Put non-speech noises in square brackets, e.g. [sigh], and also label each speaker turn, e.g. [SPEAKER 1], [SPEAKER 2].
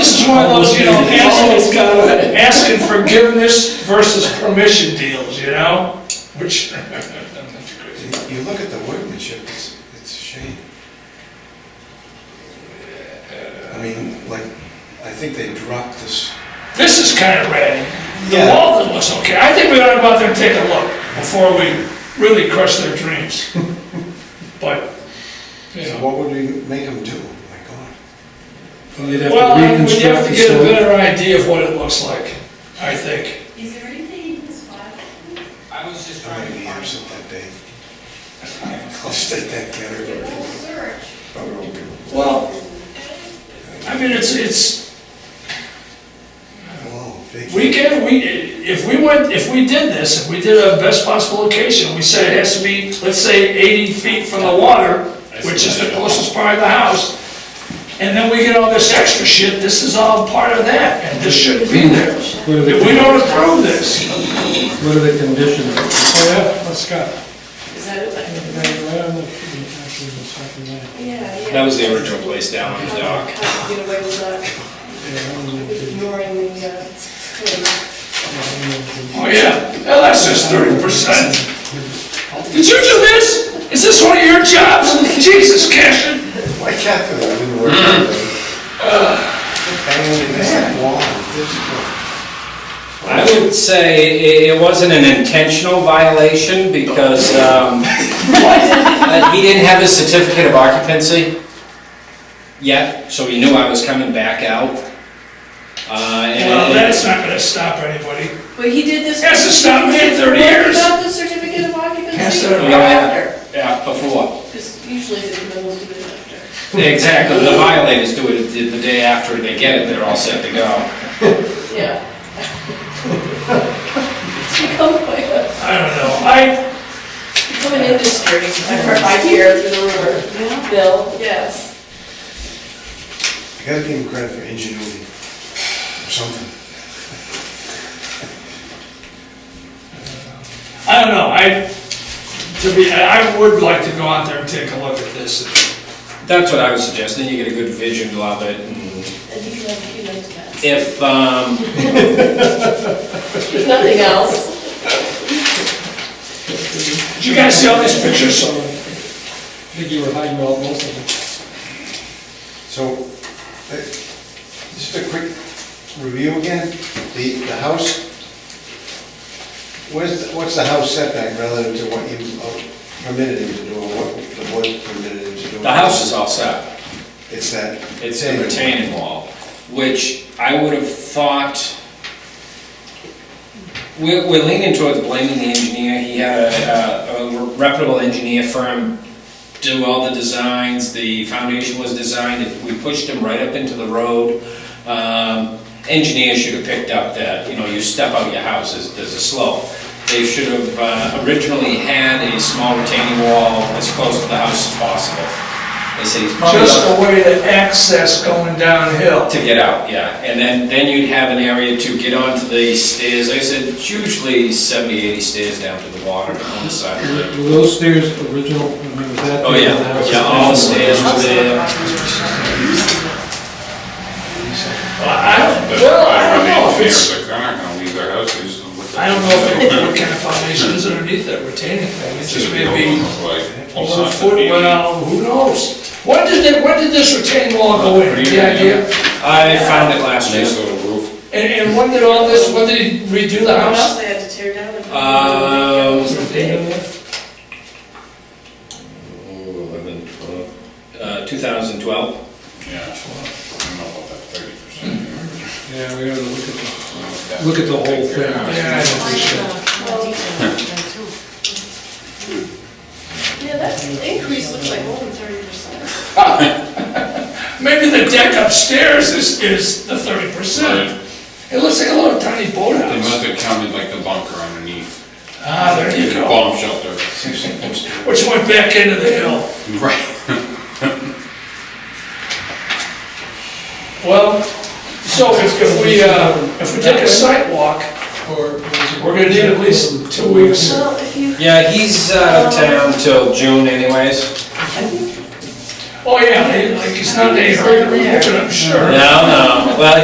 [SPEAKER 1] one of those, you know,
[SPEAKER 2] Always
[SPEAKER 1] asking,
[SPEAKER 2] got it.
[SPEAKER 1] asking forgiveness versus permission deals, you know? Which, [laughs]
[SPEAKER 3] You you look at the workmanship, it's, it's a shame. I mean, like, I think they dropped this,
[SPEAKER 1] this is kind of ratty. The
[SPEAKER 3] Yeah.
[SPEAKER 1] wall looks okay. I think we ought to go out there and take a look before we really crush their
[SPEAKER 2] [laughs]
[SPEAKER 1] dreams. But, you
[SPEAKER 3] so
[SPEAKER 1] know.
[SPEAKER 3] what would we make them do? My God.
[SPEAKER 2] You'd have to
[SPEAKER 1] Well, I- we'd
[SPEAKER 2] reconstruct
[SPEAKER 1] have to
[SPEAKER 2] the
[SPEAKER 1] get a
[SPEAKER 2] site.
[SPEAKER 1] better idea of what it looks like, I think.
[SPEAKER 4] Is there anything in this file?
[SPEAKER 5] I was just
[SPEAKER 3] I'm
[SPEAKER 5] trying
[SPEAKER 3] gonna
[SPEAKER 5] to
[SPEAKER 3] be
[SPEAKER 5] find.
[SPEAKER 3] absent that day. I'll state that category.
[SPEAKER 4] We'll search.
[SPEAKER 1] Well, I mean, it's, it's,
[SPEAKER 3] Whoa, big.
[SPEAKER 1] we can, we, if we went, if we did this, if we did a best possible location, we said it has to be, let's say, eighty feet from the water, which is the closest part of the house, and then we get all this extra shit, this is all part of that, and this shouldn't be there.
[SPEAKER 2] What are
[SPEAKER 1] If we
[SPEAKER 2] the,
[SPEAKER 1] don't approve this.
[SPEAKER 2] what are the conditions?
[SPEAKER 6] Oh, yeah, let's go.
[SPEAKER 4] Is that open?
[SPEAKER 6] Right, right on the, actually, the second line.
[SPEAKER 4] Yeah, yeah.
[SPEAKER 7] That was the original place down on the
[SPEAKER 4] How
[SPEAKER 7] dock.
[SPEAKER 4] how to get away with that,
[SPEAKER 6] Yeah, I don't know.
[SPEAKER 4] with ignoring the, uh, thing.
[SPEAKER 1] Oh, yeah, well, that's just thirty percent. Did you do this? Is this one of your jobs? Jesus, Cashin.
[SPEAKER 3] Why Catherine, I didn't work that day. Hanging in that wall, this one.
[SPEAKER 7] I would say i- it wasn't an intentional violation because um, uh, he didn't have his certificate of occupancy yet, so he knew I was coming back out. Uh, and-
[SPEAKER 1] Well, that's not gonna stop anybody.
[SPEAKER 4] But he did this.
[SPEAKER 1] Yes, it's not me in 30 years.
[SPEAKER 4] What about the certificate of occupancy?
[SPEAKER 1] Yes, sir.
[SPEAKER 4] Or after?
[SPEAKER 7] Yeah, before.
[SPEAKER 4] Because usually the criminals do it after.
[SPEAKER 7] Exactly, the violators do it the- the day after they get it, they're all set to go.
[SPEAKER 4] [laughs] Yeah. It's become quite a,
[SPEAKER 1] I don't know. I,
[SPEAKER 4] become an industry. I've heard, I hear through the rumor. Bill, yes.
[SPEAKER 3] You gotta give him credit for ingenuity, or something.
[SPEAKER 1] I don't know. I, to be, I I would like to go out there and take a look at this.
[SPEAKER 7] That's what I was suggesting, you get a good vision of it
[SPEAKER 4] And
[SPEAKER 7] and
[SPEAKER 4] he knows, he knows that.
[SPEAKER 7] if, um,
[SPEAKER 4] If nothing else,
[SPEAKER 1] Did you guys see all these pictures?
[SPEAKER 6] So, I think you were hiding all most of them.
[SPEAKER 3] So, uh, just a quick review again, the, the house, where's, the- what's the house setback relative to what you uh, permitted him to do, or what the board permitted him to do?
[SPEAKER 7] the house is all set.
[SPEAKER 3] It's that.
[SPEAKER 7] It's a retaining wall, which I would have thought, we're we're leaning towards blaming the engineer. He had a- a a reputable engineer firm do all the designs, the foundation was designed, we pushed him right up into the road. Um, Engineers should have picked up that, you know, you step out your house, there's there's a slope. They should have uh, originally had a small retaining wall as close to the house as possible. They said he's probably...
[SPEAKER 1] Just the way to access going downhill.
[SPEAKER 7] To get out, yeah, and then, then you'd have an area to get onto the stairs, like I said, it's usually 70, 80 stairs down to the water on the side of the
[SPEAKER 2] Were those stairs original, I mean, was that?
[SPEAKER 7] Oh, yeah, yeah, all the stairs were there.
[SPEAKER 1] Well, I
[SPEAKER 8] But
[SPEAKER 1] don't, well, I don't know
[SPEAKER 8] I
[SPEAKER 1] if
[SPEAKER 8] mean,
[SPEAKER 1] it's,
[SPEAKER 8] they're not gonna leave their houses. and what
[SPEAKER 1] I don't know if [laughs] what kind of foundation is underneath that retaining thing. It's
[SPEAKER 8] It's
[SPEAKER 1] just
[SPEAKER 8] just gonna be
[SPEAKER 1] maybe
[SPEAKER 8] like, all
[SPEAKER 1] one
[SPEAKER 8] sorts of
[SPEAKER 1] foot, well, who knows? When did they, when did this retaining wall go in? Any idea?
[SPEAKER 7] I found it last year.
[SPEAKER 8] Nice little roof.
[SPEAKER 1] And, and when did all this, when did he redo the
[SPEAKER 4] what
[SPEAKER 1] house?
[SPEAKER 4] else Uh, they had to tear down?
[SPEAKER 7] Um,
[SPEAKER 4] Big.
[SPEAKER 7] Oh, 11, 12, uh, 2012,
[SPEAKER 8] Yeah, I don't know about that thirty percent.
[SPEAKER 2] Yeah, we gotta look at, the- look at the whole thing.
[SPEAKER 1] Yeah, I know.
[SPEAKER 4] Yeah, that increase looks like more than thirty percent.
[SPEAKER 1] Maybe the deck upstairs is, is the thirty percent. It looks like a little tiny
[SPEAKER 8] They must
[SPEAKER 1] boathouse.
[SPEAKER 8] have counted like the bunker underneath,
[SPEAKER 1] Ah, there you
[SPEAKER 8] the
[SPEAKER 1] go,
[SPEAKER 8] bomb shelter.
[SPEAKER 1] which went back into the hill.
[SPEAKER 8] Right.
[SPEAKER 1] Well, so if, if we, uh, if we take a site walk,
[SPEAKER 6] Or was it-
[SPEAKER 1] we're gonna need at least two weeks.
[SPEAKER 4] Well, if you,
[SPEAKER 7] yeah, he's out of town till June anyways.
[SPEAKER 1] Oh, yeah, they- like, it's not any hurry to remove it, I'm sure.
[SPEAKER 7] No, no, well,